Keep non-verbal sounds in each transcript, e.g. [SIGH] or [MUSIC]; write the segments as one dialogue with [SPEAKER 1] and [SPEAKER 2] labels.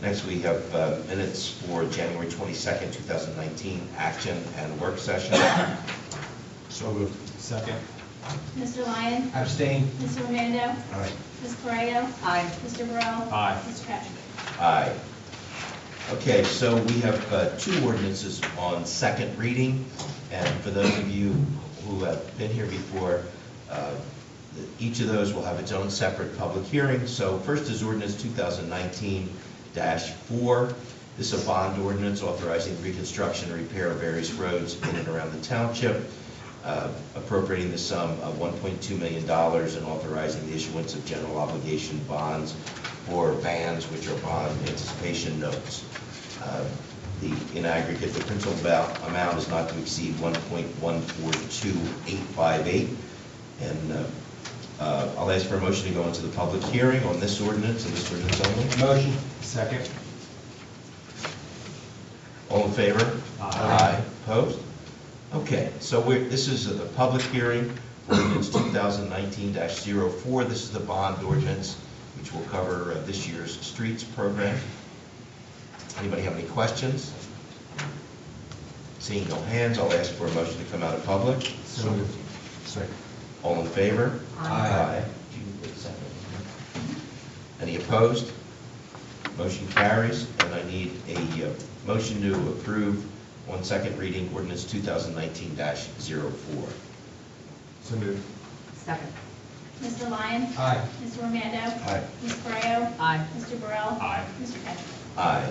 [SPEAKER 1] Next, we have uh, minutes for January 22nd, 2019, action and work session.
[SPEAKER 2] So moved. Second.
[SPEAKER 3] Mr. Lyon?
[SPEAKER 2] Abstain.
[SPEAKER 3] Mr. Romando?
[SPEAKER 2] Aye.
[SPEAKER 3] Ms. Correa?
[SPEAKER 4] Aye.
[SPEAKER 3] Mr. Burrell?
[SPEAKER 2] Aye.
[SPEAKER 3] Mr. Patrick?
[SPEAKER 1] Aye. Okay, so we have uh, two ordinances on second reading, and for those of you who have been here before, uh, each of those will have its own separate public hearing. So first is ordinance 2019-4. This is a bond ordinance authorizing reconstruction and repair of various roads in and around the township, uh, appropriating the sum of $1.2 million and authorizing the issuance of general obligation bonds or bands, which are bond anticipation notes. Uh, The, in aggregate, the principal val- amount is not to exceed 1.142858. And uh, uh, I'll ask for a motion to go into the public hearing on this ordinance and this ordinance only.
[SPEAKER 2] Motion. Second.
[SPEAKER 1] All in favor?
[SPEAKER 2] Aye.
[SPEAKER 1] Opposed? Okay, so we're, this is the public hearing, ordinance 2019-04. This is the bond ordinance, which will cover uh, this year's streets program. Anybody have any questions? Seeing no hands, I'll ask for a motion to come out of public.
[SPEAKER 2] So moved. Second.
[SPEAKER 1] All in favor?
[SPEAKER 2] Aye.
[SPEAKER 1] You did second. Any opposed? Motion carries, and I need a uh, motion to approve on second reading ordinance 2019-04.
[SPEAKER 2] So moved.
[SPEAKER 4] Second.
[SPEAKER 3] Mr. Lyon?
[SPEAKER 2] Aye.
[SPEAKER 3] Mr. Romando?
[SPEAKER 1] Aye.
[SPEAKER 3] Ms. Correa?
[SPEAKER 4] Aye.
[SPEAKER 3] Mr. Burrell?
[SPEAKER 2] Aye.
[SPEAKER 3] Mr. Patrick?
[SPEAKER 1] Aye.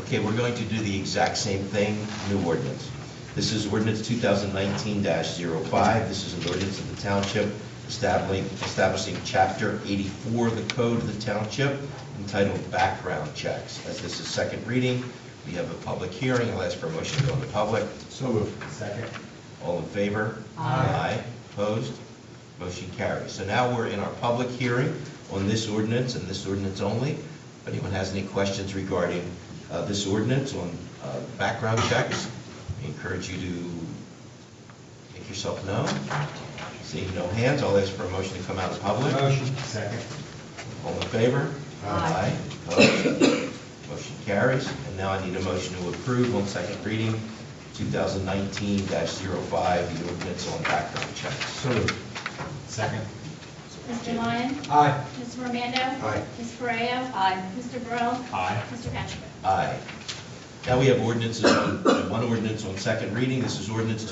[SPEAKER 1] Okay, we're going to do the exact same thing, new ordinance. This is ordinance 2019-05. This is an ordinance of the township establishing, establishing Chapter 84 of the Code of the Township entitled Background Checks. As this is second reading, we have a public hearing. I'll ask for a motion to go into public.
[SPEAKER 2] So moved. Second.
[SPEAKER 1] All in favor?
[SPEAKER 4] Aye.
[SPEAKER 1] Opposed? Motion carries. So now we're in our public hearing on this ordinance and this ordinance only. If anyone has any questions regarding uh, this ordinance on uh, background checks, I encourage you to make yourself known. Seeing no hands, I'll ask for a motion to come out of public.
[SPEAKER 2] Second.
[SPEAKER 1] All in favor?
[SPEAKER 4] Aye.
[SPEAKER 1] Opposed? Motion carries. And now I need a motion to approve on second reading, 2019-05, the ordinance on background checks.
[SPEAKER 2] So moved. Second.
[SPEAKER 3] Mr. Lyon?
[SPEAKER 2] Aye.
[SPEAKER 3] Mr. Romando?
[SPEAKER 2] Aye.
[SPEAKER 3] Ms. Correa?
[SPEAKER 4] Aye.
[SPEAKER 3] Mr. Burrell?
[SPEAKER 2] Aye.
[SPEAKER 3] Mr. Patrick?
[SPEAKER 1] Aye. Now we have ordinances, on- one ordinance on second reading. This is ordinance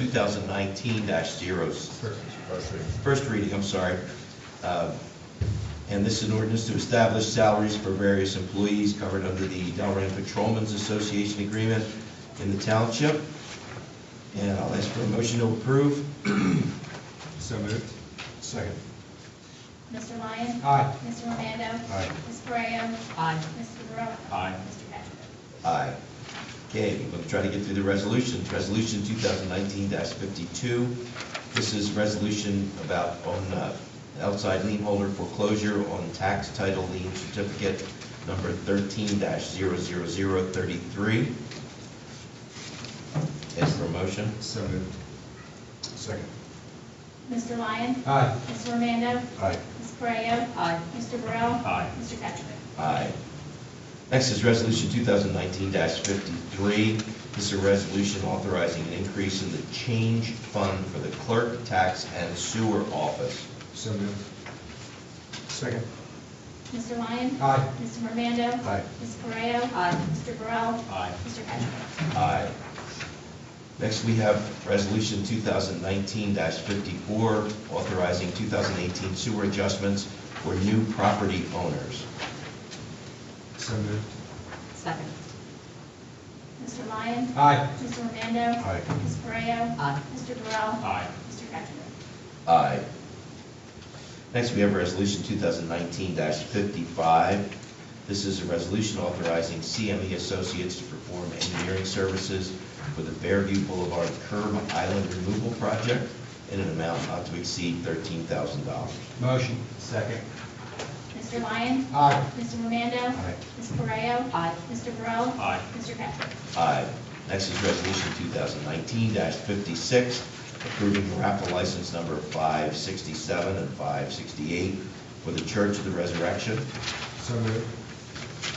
[SPEAKER 1] 2019-06. first reading, I'm sorry. Uh, And this is an ordinance to establish salaries for various employees covered under the Delran Patrolmen's Association Agreement in the township. And I'll ask for a motion to approve. [CLEARS THROAT]
[SPEAKER 2] So moved. Second.
[SPEAKER 3] Mr. Lyon?
[SPEAKER 2] Aye.
[SPEAKER 3] Mr. Romando?
[SPEAKER 2] Aye.
[SPEAKER 3] Ms. Correa?
[SPEAKER 4] Aye.
[SPEAKER 3] Mr. Burrell?
[SPEAKER 2] Aye.
[SPEAKER 3] Mr. Patrick?
[SPEAKER 1] Aye. Okay, we're going to try to get through the resolutions. Resolution 2019-52, this is resolution about on uh, outside lien holder foreclosure on tax title lien certificate number 13-00033. Ask for a motion?
[SPEAKER 2] So moved. Second.
[SPEAKER 3] Mr. Lyon?
[SPEAKER 2] Aye.
[SPEAKER 3] Mr. Romando?
[SPEAKER 2] Aye.
[SPEAKER 3] Ms. Correa?
[SPEAKER 4] Aye.
[SPEAKER 3] Mr. Burrell?
[SPEAKER 2] Aye.
[SPEAKER 3] Mr. Patrick?
[SPEAKER 1] Aye. Next is Resolution 2019-53. This is a resolution authorizing an increase in the change fund for the clerk, tax, and sewer office.
[SPEAKER 2] So moved. Second.
[SPEAKER 3] Mr. Lyon?
[SPEAKER 2] Aye.
[SPEAKER 3] Mr. Romando?
[SPEAKER 2] Aye.
[SPEAKER 3] Ms. Correa?
[SPEAKER 4] Aye.
[SPEAKER 3] Mr. Burrell?
[SPEAKER 2] Aye.
[SPEAKER 3] Mr. Patrick?
[SPEAKER 1] Aye. Next, we have Resolution 2019-54, authorizing 2018 sewer adjustments for new property owners.
[SPEAKER 2] So moved.
[SPEAKER 4] Second.
[SPEAKER 3] Mr. Lyon?
[SPEAKER 2] Aye.
[SPEAKER 3] Mr. Romando?
[SPEAKER 2] Aye.
[SPEAKER 3] Ms. Correa?
[SPEAKER 4] Aye.
[SPEAKER 3] Mr. Burrell?
[SPEAKER 2] Aye.
[SPEAKER 3] Mr. Patrick?
[SPEAKER 1] Aye. Next, we have Resolution 2019-55. This is a resolution authorizing CME Associates to perform engineering services for the Fairview Boulevard curb island removal project in an amount not to exceed $13,000.
[SPEAKER 2] Motion. Second.
[SPEAKER 3] Mr. Lyon?
[SPEAKER 2] Aye.
[SPEAKER 3] Mr. Romando?
[SPEAKER 2] Aye.
[SPEAKER 3] Ms. Correa?
[SPEAKER 4] Aye.
[SPEAKER 3] Mr. Burrell?
[SPEAKER 2] Aye.
[SPEAKER 3] Mr. Patrick?
[SPEAKER 1] Aye. Next is Resolution 2019-56, approving raffle license number 567 and 568 for the Church of the Resurrection.
[SPEAKER 2] So moved.